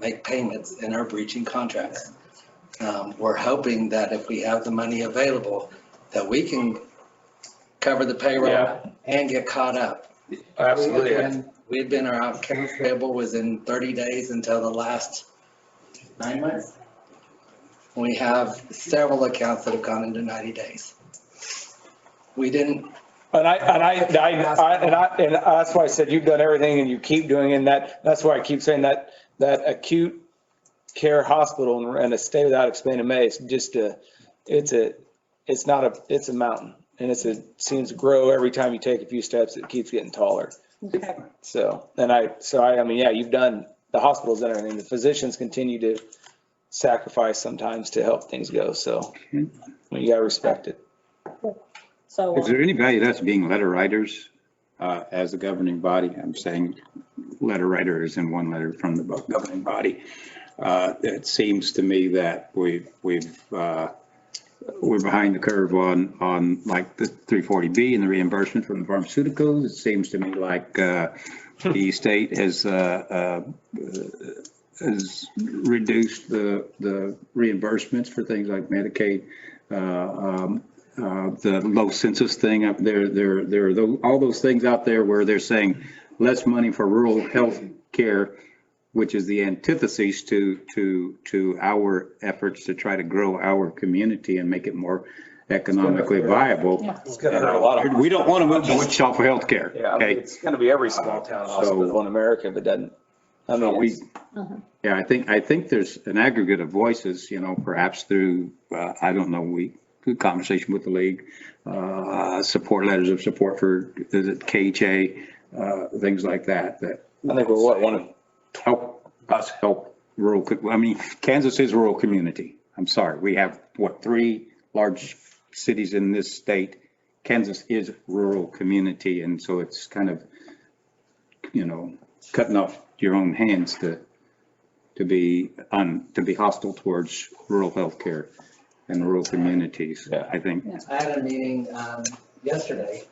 make payments and are breaching contracts. Um, We're hoping that if we have the money available, that we can cover the Yeah. payroll and get caught up. Absolutely. We had been, our accounts payable was in 30 days until the last nine months. We have several accounts that have gone into 90 days. We didn't, And I, and I, and I, and I, and that's why I said you've done everything and you keep doing it. And that, that's why I keep saying that, that acute care hospital and a stay without expanded May is just a, it's a, it's not a, it's a mountain. And it's a, seems to grow every time you take a few steps, it keeps getting taller. Okay. So, and I, so I, I mean, yeah, you've done, the hospitals and everything, the physicians continue to sacrifice sometimes to help things go. So I mean, you gotta respect it. So, Is there any value to us being letter writers uh, as the governing body? I'm saying letter writer is in one letter from the governing body. Uh, It seems to me that we've, we've, uh, we're behind the curve on, on like the 340B and the reimbursement from the pharmaceuticals. It seems to me like uh, the state has, uh, uh, has reduced the, the reimbursements for things like Medicaid, uh, um, uh, the low census thing up there, there, there are tho- all those things out there where they're saying less money for rural health care, which is the antithesis to, to, to our efforts to try to grow our community and make it more economically viable. It's gonna hurt a lot of. We don't want to move to Wichita for health care. Yeah, I mean, okay? it's gonna be every small town hospital in America that doesn't. I So mean, we, we, yeah, I think, I think there's an aggregate of voices, you know, perhaps through, uh, I don't know, we, through conversation with the league, uh, support letters of support for, is it KHA, uh, things like that, that I think we're what, one of, help us help rural, co- I mean, Kansas is a rural community. I'm sorry, we have, what, three large cities in this state? Kansas is rural community, and so it's kind of, you know, cutting off your own hands to, to be, un to be hostile towards rural healthcare and rural communities, Yeah. I think. I had a meeting um, yesterday.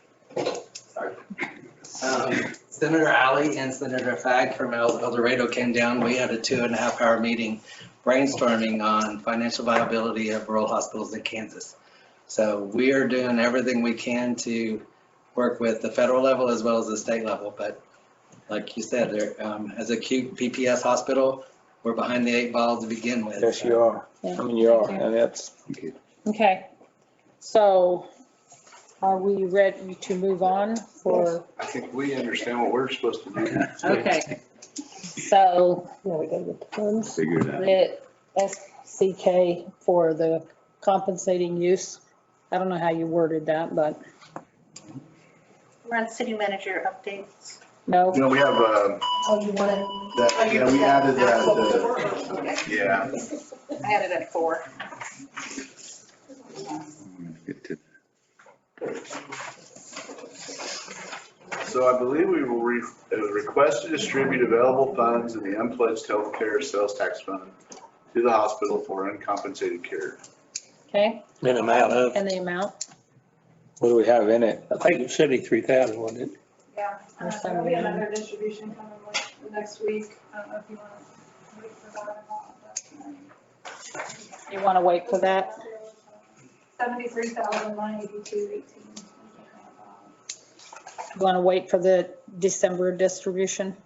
Sorry. Um, Senator Alley and Senator Fag from El El Dorado came down. We had a two and a half hour meeting brainstorming on financial viability of rural hospitals in Kansas. So we are doing everything we can to work with the federal level as well as the state level. But like you said, there, um, as a acute PPS hospital, we're behind the eight ball to begin with. yes, you are. I mean, you are, and that's, okay. So are we ready to move on for, I think we understand what we're supposed to do. okay. So Now we gotta get the funds. Figure it out. the SCK for the compensating use. I don't know how you worded that, but We're on city manager updates. no. You know, we have, uh, Oh, you want it? that, yeah, we added that, uh, yeah, I had it at four. Get to- so I believe we will re, it was request to distribute available funds in the unpledged healthcare sales tax fund to the hospital for uncompensated care. Okay, in amount of, and the amount? what do we have in it? I think it was seventy-three thousand, wasn't it? Yeah, Or uh, there'll be something. another distribution coming like next week. I don't know if you want to wait for that or not. but- uh, You want to wait for that? Seventy-three thousand nine eighty-two eighteen. You want to wait for the December distribution?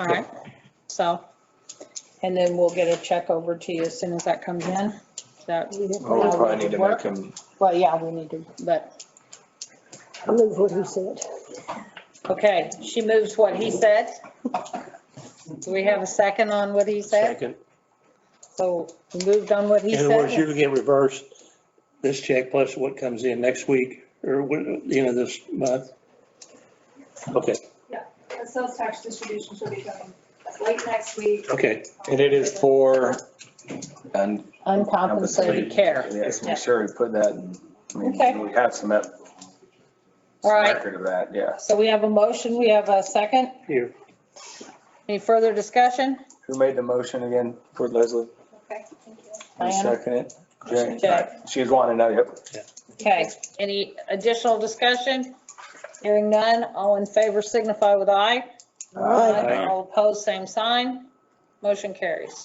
All right, so, and then we'll get a check over to you as soon as that comes in. Is That, Oh, we probably need to make them, well, yeah, we need to, but, I move what he said. okay, she moves what he said. Do we have a second on what he said? Second. So we moved on what he In other words, you said? would get reversed, this check plus what comes in next week or what- the end of this month. Okay, The sales tax distribution should be coming late next week. okay. and it is for, and Uncompensated care. yes, make sure we put that, in. I Okay. mean, we have some ep- All right. record of that, yeah. So we have a motion, we have a second. Here. Any further discussion? Who made the motion again for Leslie? Okay, thank you. Who Diana? seconded it? Jack. Jay? She was wanting to know, yep. Okay, any additional discussion? Hearing none, all in favor signify with aye. Aye. All opposed, same sign. Motion carries.